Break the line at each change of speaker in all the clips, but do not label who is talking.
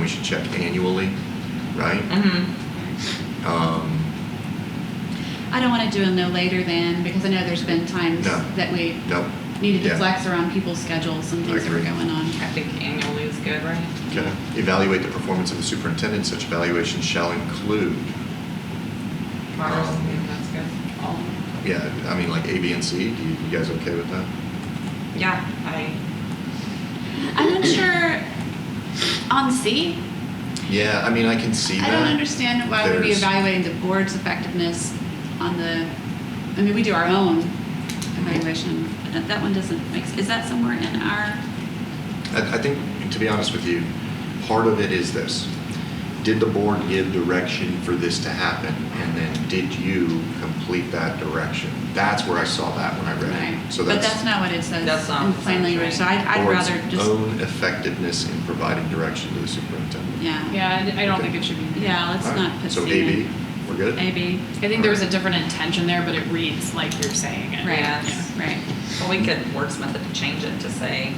we should check annually, right?
Mm-hmm.
Um,
I don't want to do a no later than, because I know there's been times
No.
that we
no,
needed to
Yeah.
flex around people's schedules and things that were
agree.
going on.
I think annually is good, right?
okay. Evaluate the performance of the superintendent, such evaluation shall include,
Progress,
Um,
yeah, that's good.
Um,
All-
yeah, I mean, like A, B, and C, do you, you guys okay with that?
Yeah, I,
I'm not sure on C.
Yeah, I mean, I can see
I
that.
don't understand why we'd be
There's-
evaluating the board's effectiveness on the, I mean, we do our own evaluation. but That that one doesn't make, s- is that somewhere in our,
I, I think, to be honest with you, part of it is this. Did the board give direction for this to happen? And then did you complete that direction? That's where I saw that when I read
right?
it. So
But that's
that's
not what it says
That's not
in
what it
plain
says,
language, so
right.
I'd I'd
board's
rather just,
own effectiveness in providing direction to the superintendent.
yeah.
Yeah, I- I don't think it should be.
Yeah, let's
All right.
not put
So
C
AB,
in.
we're good?
AB,
I think there was a different intention there, but it reads like you're saying it.
right,
Yes.
right.
well, we could wordsmith it to change it to say,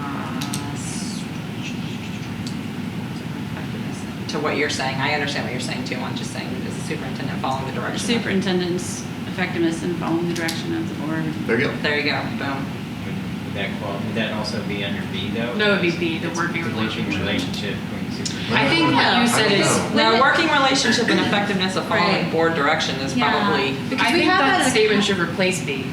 uh, s- to what you're saying. I understand what you're saying too. I'm just saying, is the superintendent following the
The
direction? of-
superintendent's effectiveness in following the direction of the board.
There you go.
There you go, boom.
Would that qual, would that also be under B though?
No, it'd be B, the
It's
working
Relationship relationship between
I
superintendent.
think what
No.
you said is,
No.
Now, a working relationship and effectiveness of following
Right.
board direction is
Yeah.
probably,
Because
I
we
think
have had
that
a-
statement should replace B,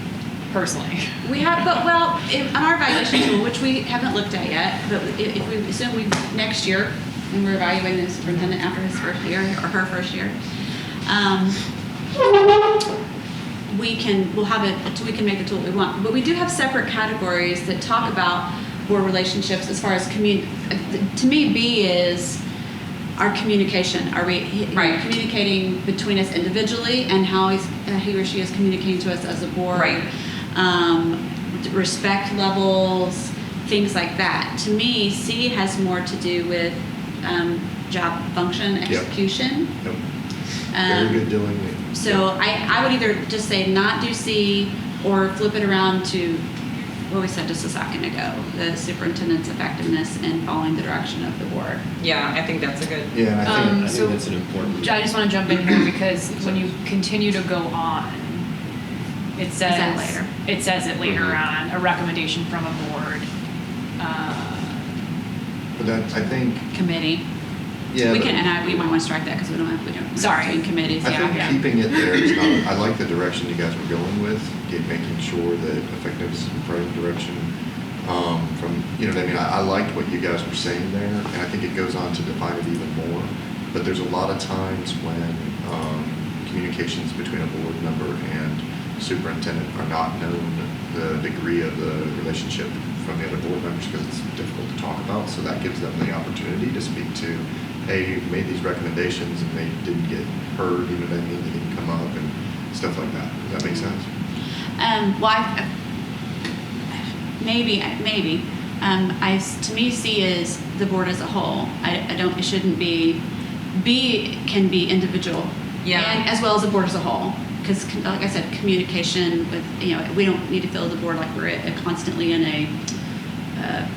personally.
We have, but well, if, on our evaluation tool, which we haven't looked at yet, but i- if we assume we next year, when we're evaluating the superintendent after his first year or her first year, um, we can we'll have it. We can make the tool we want, but we do have separate categories that talk about board relationships as far as commun. uh, To me, B is our communication. Are we he-
Right.
communicating between us individually and how he's, uh, he or she is communicating to us as a board?
Right.
Um, respect levels, things like that. To me, C has more to do with um, job function execution.
Yep.
Um,
Very good, Dylan.
so I, I would either just say not do C or flip it around to what we said just a second ago, the superintendent's effectiveness in following the direction of the board.
yeah, I think that's a good,
Yeah, and I
Um,
think,
I think so- that's
an important.
I just want to jump in here because when you continue to go on, it says
that later?
It says it later
Mhm.
on a recommendation from a board. Uh,
but that, I think,
Committee.
yeah.
um, we
but-
can, and I, we might want to strike that because we don't have, we don't.
Sorry.
In committees,
I
yeah.
think
yeah.
keeping it there is not, I like the direction you guys were going with, get- making sure that effectiveness is in the right direction. Um, from, you know what I mean, I, I liked what you guys were saying there, and I think it goes on to define it even more. But there's a lot of times when, um, communications between a board member and superintendent are not known, the degree of the relationship from the other board members, because it's difficult to talk about, so that gives them the opportunity to speak to hey, you made these recommendations and they didn't get heard, you know what I mean, they didn't come up and stuff like that. Does that make sense?
Um, well, I, maybe, maybe. Um, I, to me, C is the board as a whole. I, I don't, it shouldn't be, B can be individual.
Yeah.
And as well as the board as a whole. Because, like I said, communication with, you know, we don't need to feel the board like we're uh, constantly in a uh,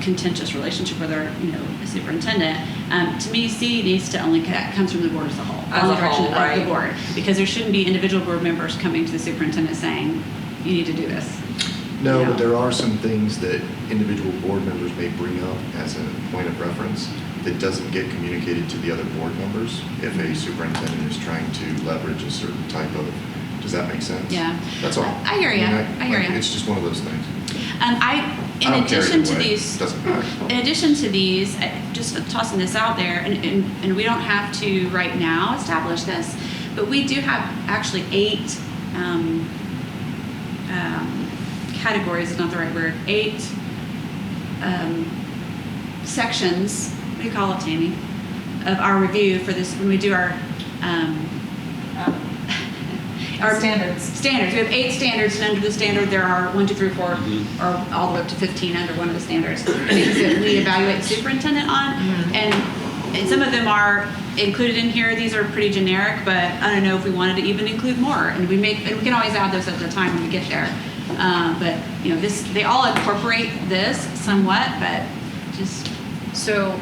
contentious relationship with our, you know, superintendent. Um, to me, C needs to only, that comes from the board as a whole.
As
Follow
a
the direction
whole,
Of
right.
the board because there shouldn't be individual board members coming to the superintendent saying, you need to do this.
No,
Yeah.
but there are some things that individual board members may bring up as a point of reference that doesn't get communicated to the other board members if a superintendent is trying to leverage a certain type of, does that make sense?
Yeah.
That's all.
I- I hear ya.
mean,
I hear
like,
ya.
It's just one of those things.
And I, in
I don't care
addition
either
to
way.
these,
Doesn't matter.
in addition to these, I- just tossing this out there, and, and, and we don't have to right now establish this, but we do have actually eight um, um, categories, is not the right word, eight um, sections, what do you call it, Tammy, of our review for this, when we do our um, our
Standards.
Standards. We have eight standards, and under the standard, there are one, two, three, four,
Mhm.
or all the way up to 15 under one of the standards. Things that we evaluate superintendent on, and, and some of them are included in here. These are pretty generic, but I don't know if we wanted to even include more. And we make, and we can always add those at the time when we get there. Uh, but you know, this they all incorporate this somewhat, but just
So